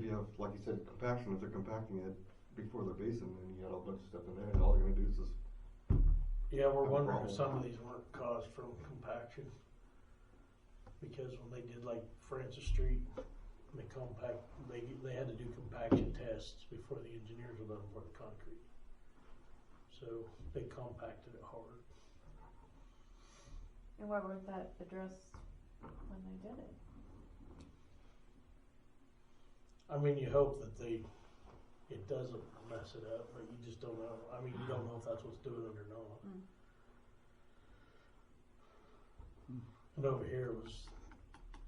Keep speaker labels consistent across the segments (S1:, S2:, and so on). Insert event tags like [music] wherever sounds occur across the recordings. S1: you have, like you said, compaction, if they're compacting it before their basin, and you got a bunch of stuff in there, and all they're gonna do is just,
S2: Yeah, we're
S1: No
S2: wondering
S1: problem.
S2: if some of these weren't caused from compaction. Because when they did like Francis Street, they compact, they, they had to do compaction tests before the engineers were done for the concrete. So they compacted it hard.
S3: And why weren't that addressed when they did it?
S2: I mean, you hope that they, it doesn't mess it up, but you just don't know. I mean, you don't know if that's what's doing it or not.
S3: Mm.
S2: And over here was,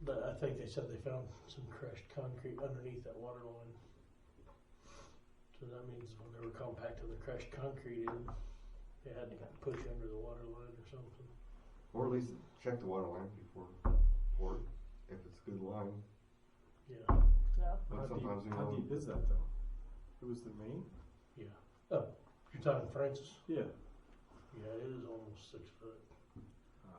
S2: but I think they said they found some crushed concrete underneath that water line. So that means when they were compacting the crushed concrete in, they had to push under the water line or something.
S1: or at least check the water line before, or if it's good line,
S2: Yeah,
S3: No.
S1: but sometimes you
S4: How
S1: know.
S4: deep is that though? It was the main?
S2: yeah. Oh, you're talking Francis?
S4: Yeah.
S2: Yeah, it is almost six foot.
S4: Ah,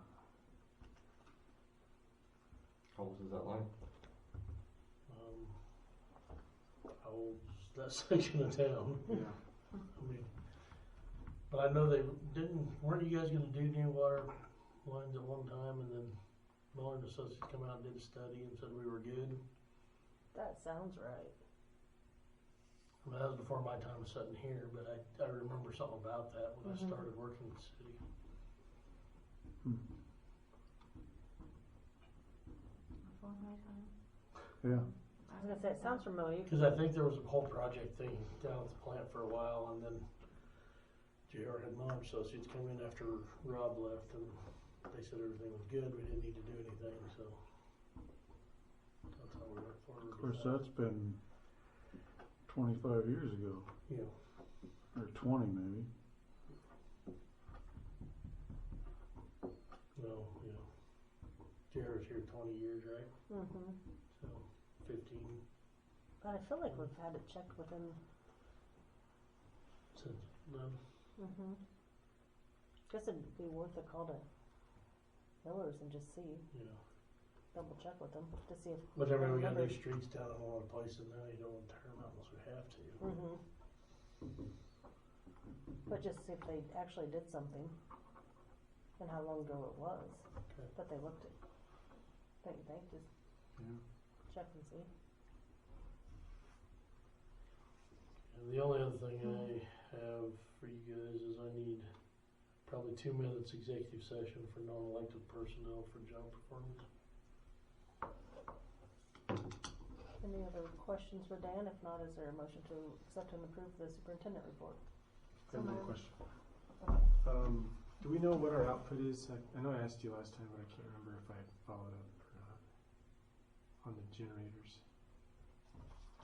S1: How old is that line?
S2: Um, how old's that [laughs] section of town?
S4: Yeah.
S2: I mean, but I know they didn't. Weren't you guys going to do new water lines at one time, and then Muller and Associates come out and did a study and said we were good?
S3: That sounds right.
S2: Well, that was before my time sitting here, but I, I remember something about that when
S3: Mhm.
S2: I started working in the city.
S3: Before my time.
S4: Yeah.
S3: I was gonna say, it sounds familiar.
S2: Because I think there was a whole project thing down at the plant for a while, and then JR had Muller and Associates come in after Rob left, and they said everything was good. We didn't need to do anything, so that's how we went forward.
S5: Of course, that's been twenty-five years ago,
S2: yeah.
S5: or twenty maybe.
S2: No, yeah. Jared's here twenty years, right?
S3: Mm-hmm.
S2: So fifteen
S3: But I feel like we've had it checked within.
S2: since then.
S3: Mm-hmm. Guess it'd be worth a call to Miller's and just see,
S2: Yeah.
S3: double check with them to see if.
S2: But I mean, we got
S3: Remember-
S2: new streets down in a lot of places now. You don't want to tear them out unless we have to.
S3: Mm-hmm. But just see if they actually did something and how long ago it was.
S2: Okay.
S3: But they looked at, don't you think, just check and see.
S2: And the only other thing I have for you guys is I need probably two minutes executive session for non-elected personnel for job performance.
S3: Any other questions for Dan? If not, is there a motion to accept and approve the superintendent report?
S4: I have another question.
S3: Okay.
S4: Um, do we know what our output is? I, I know I asked you last time, but I can't remember if I followed up or not. On the generators.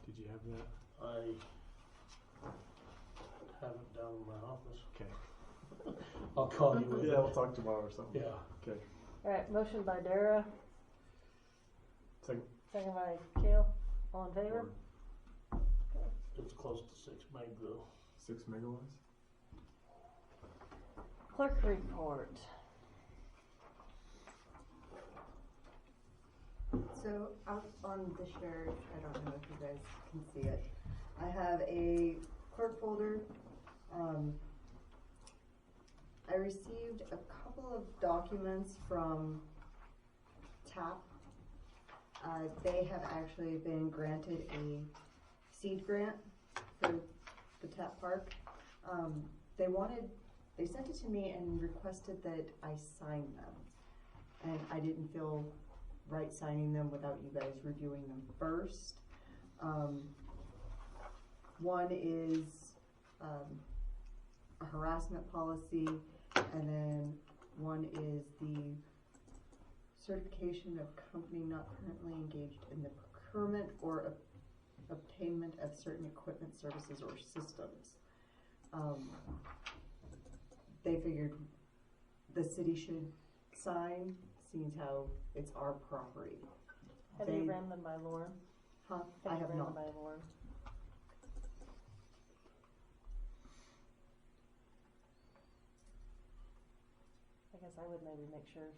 S4: Did you have that?
S2: I have it down in my office.
S4: Okay.
S2: [laughs] I'll call you with it.
S4: talk tomorrow or something.
S2: Yeah.
S3: All right, motion by Dara,
S4: Second.
S3: second by Kale. All in favor?
S2: It's close to six meg though.
S4: Six megawatts?
S3: Clerk report.
S6: So out on the shirt, I don't know if you guys can see it. I have a clerk folder. Um, I received a couple of documents from TAP. Uh, they have actually been granted a seed grant for the TAP park. Um, they wanted, they sent it to me and requested that I sign them. And I didn't feel right signing them without you guys reviewing them first. Um, one is, um, a harassment policy, and then one is the certification of company not currently engaged in the procurement or ob- obtainment of certain equipment, services, or systems. Um, they figured the city should sign, seeing as how it's our property.
S3: Have you
S6: They-
S3: ran them by Lauren?
S6: Huh? I
S3: you
S6: have
S3: ran them
S6: not.
S3: By Lauren. I guess I would maybe make sure